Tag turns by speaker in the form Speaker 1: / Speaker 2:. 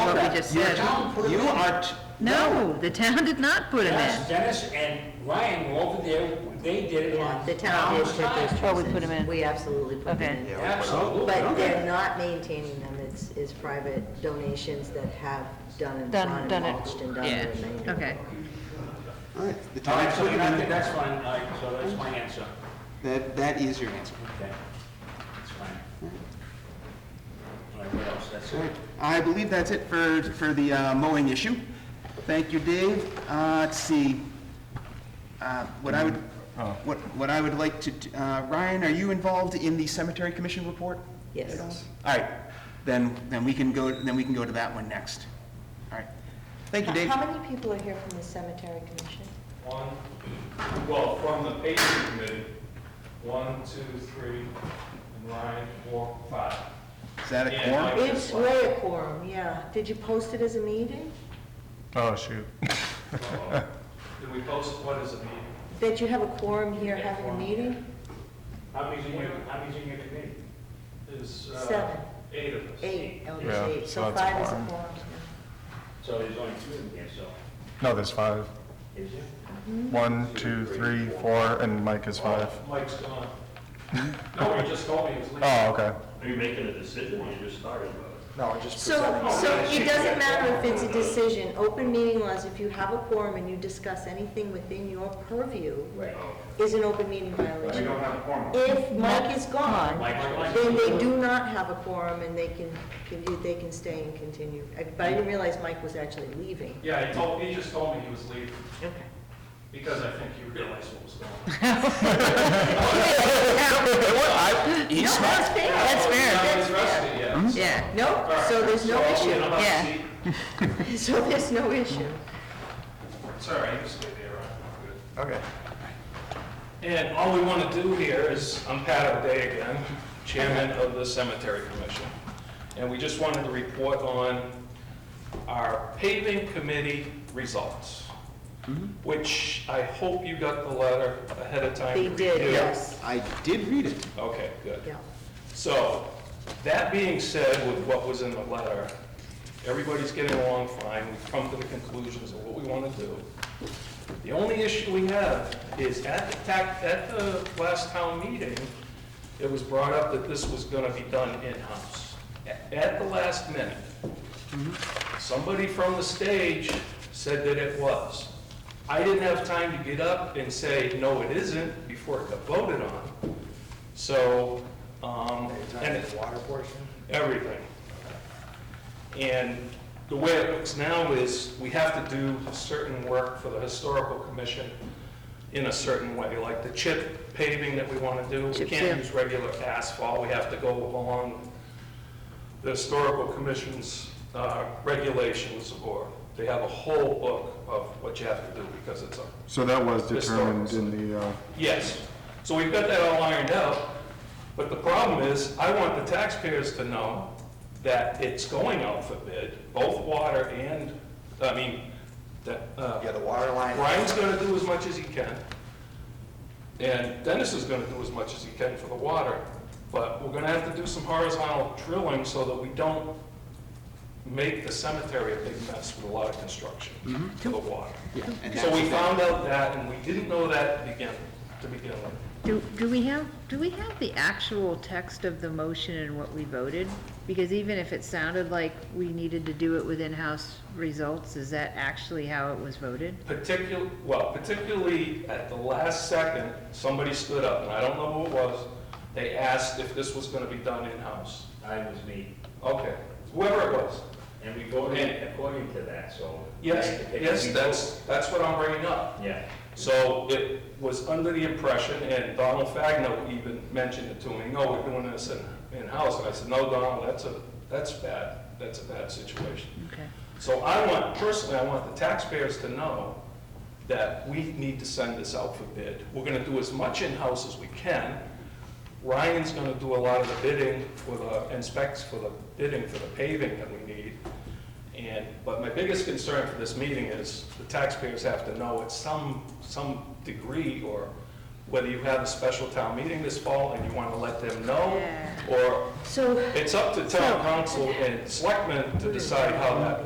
Speaker 1: it.
Speaker 2: Yeah,
Speaker 3: town put it
Speaker 2: you
Speaker 3: in.
Speaker 2: are, t-
Speaker 1: No, the town did not put him
Speaker 3: Dennis,
Speaker 1: in.
Speaker 3: Dennis and Ryan were over there, they did it on.
Speaker 4: The town did put those
Speaker 1: Oh, we
Speaker 4: trees in.
Speaker 1: put 'em in.
Speaker 4: We absolutely put
Speaker 1: Okay.
Speaker 4: them in.
Speaker 3: Absolutely.
Speaker 4: But they're not maintaining them, it's, it's private donations that have done and
Speaker 1: Done-
Speaker 4: gone
Speaker 1: done
Speaker 4: and
Speaker 1: it.
Speaker 4: mulched and done
Speaker 1: Yeah,
Speaker 4: the remainder.
Speaker 1: okay.
Speaker 2: all right, the
Speaker 3: All
Speaker 2: town
Speaker 3: right, so
Speaker 2: put it
Speaker 3: I think
Speaker 2: in.
Speaker 3: that's fine, all right, so that's my answer.
Speaker 2: That, that is your answer.
Speaker 3: Okay, that's fine. All right, what else? That's
Speaker 2: All
Speaker 3: it.
Speaker 2: right. I believe that's it for, for the uh, mowing issue. Thank you, Dave. Uh, Let's see, Uh, what I would,
Speaker 5: Oh.
Speaker 2: what, what I would like to, do- uh, Ryan, are you involved in the cemetery commission report?
Speaker 4: Yes.
Speaker 2: at all? All right, then, then we can go, then we can go to that one next. All right. Thank you, Dave.
Speaker 6: How many people are here from the cemetery commission?
Speaker 5: One, well, from the paving committee, one, two, three, and Ryan, four, five.
Speaker 2: Is that a
Speaker 5: Yeah,
Speaker 2: quorum?
Speaker 5: Mike.
Speaker 6: It's way a quorum, yeah. Did you post it as a meeting?
Speaker 7: Oh, shoot.
Speaker 5: Uh-oh. Did we post, what is it,
Speaker 6: That you have a quorum here having a meeting?
Speaker 3: How many's in your, how many's in your committee?
Speaker 5: is? uh,
Speaker 6: Seven.
Speaker 5: Eight of us.
Speaker 6: Eight, oh,
Speaker 7: Yeah,
Speaker 6: there's eight,
Speaker 7: so
Speaker 6: so
Speaker 7: that's a
Speaker 6: five is a
Speaker 7: quorum.
Speaker 6: quorum.
Speaker 3: So there's only two in here, so,
Speaker 7: No, there's five.
Speaker 3: is there?
Speaker 7: One, two, three, four, and Mike is five.
Speaker 5: Oh, Mike's gone. No, he just told me he was leaving.
Speaker 7: Oh, okay.
Speaker 8: Are you making a decision when you just started about it?
Speaker 7: No, I just.
Speaker 6: So, so it doesn't matter if it's a decision, open meeting laws, if you have a quorum and you discuss anything within your purview,
Speaker 3: Right.
Speaker 8: Oh.
Speaker 6: is an open meeting
Speaker 5: We
Speaker 6: violation.
Speaker 5: don't have a quorum.
Speaker 6: If Mike is gone,
Speaker 3: Mike, Mike, Mike.
Speaker 6: then they do not have a quorum and they can, can- they can stay and continue. I- But I didn't realize Mike was actually leaving.
Speaker 5: Yeah, he told, he just told me he was leaving,
Speaker 6: Okay.
Speaker 5: because I think he realized what was going on.
Speaker 2: He's
Speaker 6: No,
Speaker 2: smart.
Speaker 6: that's fair.
Speaker 1: That's fair.
Speaker 5: Now
Speaker 6: That's
Speaker 5: he's rested,
Speaker 6: fair.
Speaker 5: yeah.
Speaker 1: Yeah.
Speaker 6: No, so there's no
Speaker 5: All right, so
Speaker 6: issue.
Speaker 5: I'll get him up to
Speaker 1: Yeah.
Speaker 5: seat.
Speaker 6: So there's no issue.
Speaker 5: Sorry, you can stay there, I'm good.
Speaker 7: Okay.
Speaker 5: And all we want to do here is, I'm Pat O'Day again, Chairman of the Cemetery Commission. And we just wanted to report on our paving committee results, which I hope you got the letter ahead of time.
Speaker 6: They
Speaker 5: to
Speaker 6: did,
Speaker 5: review.
Speaker 6: yes,
Speaker 2: I did read it.
Speaker 5: Okay, good.
Speaker 6: yeah.
Speaker 5: So, that being said, with what was in the letter, everybody's getting along fine, we've come to the conclusions of what we want to do. The only issue we have is at the tac, at the last town meeting, it was brought up that this was gonna be done in-house, at at the last minute. Somebody from the stage said that it was. I didn't have time to get up and say, no, it isn't, before it got voted on. So, um, and
Speaker 3: water portion?
Speaker 5: everything. And the way it looks now is, we have to do certain work for the historical commission in a certain way, like the chip paving that we want to do. We
Speaker 1: Chip seal.
Speaker 5: can't use regular asphalt, we have to go along the historical commission's uh, regulations, or they have a whole book of what you have to do, because it's a
Speaker 7: So that was
Speaker 5: This
Speaker 7: determined
Speaker 5: starts.
Speaker 7: in the, uh,
Speaker 5: Yes. So we've got that all ironed out, but the problem is, I want the taxpayers to know that it's going out for bid, both water and, I mean, that, uh,
Speaker 2: the water line.
Speaker 5: Brian's gonna do as much as he can, and Dennis is gonna do as much as he can for the water, but we're gonna have to do some horizontal drilling so that we don't make the cemetery a big mess with a lot of construction for the water.
Speaker 2: and
Speaker 5: So we
Speaker 2: that's-
Speaker 5: found out that, and we didn't know that to begin, to begin with.
Speaker 1: Do, do we have, do we have the actual text of the motion and what we voted? Because even if it sounded like we needed to do it with in-house results, is that actually how it was voted?
Speaker 5: Particular, well, particularly at the last second, somebody stood up, and I don't know who it was, they asked if this was gonna be done in-house.
Speaker 3: I was me,
Speaker 5: Okay, whoever it was.
Speaker 3: and we voted according to that, so.
Speaker 5: Yes, yes, that's, that's what I'm bringing up.
Speaker 3: Yeah.
Speaker 5: So it was under the impression, and Donald Fagno even mentioned it to me, no, we're doing this in- in-house. And I said, no, Donald, that's a, that's bad, that's a bad situation.
Speaker 1: Okay.
Speaker 5: So I want, personally, I want the taxpayers to know that we need to send this out for bid. We're gonna do as much in-house as we can. Ryan's gonna do a lot of the bidding for the, and specs for the bidding for the paving that we need. And, but my biggest concern for this meeting is the taxpayers have to know at some, some degree, or whether you have a special town meeting this fall and you wanna let them know,
Speaker 1: Yeah.
Speaker 5: or
Speaker 6: So
Speaker 5: it's up to town council and selectmen to decide how that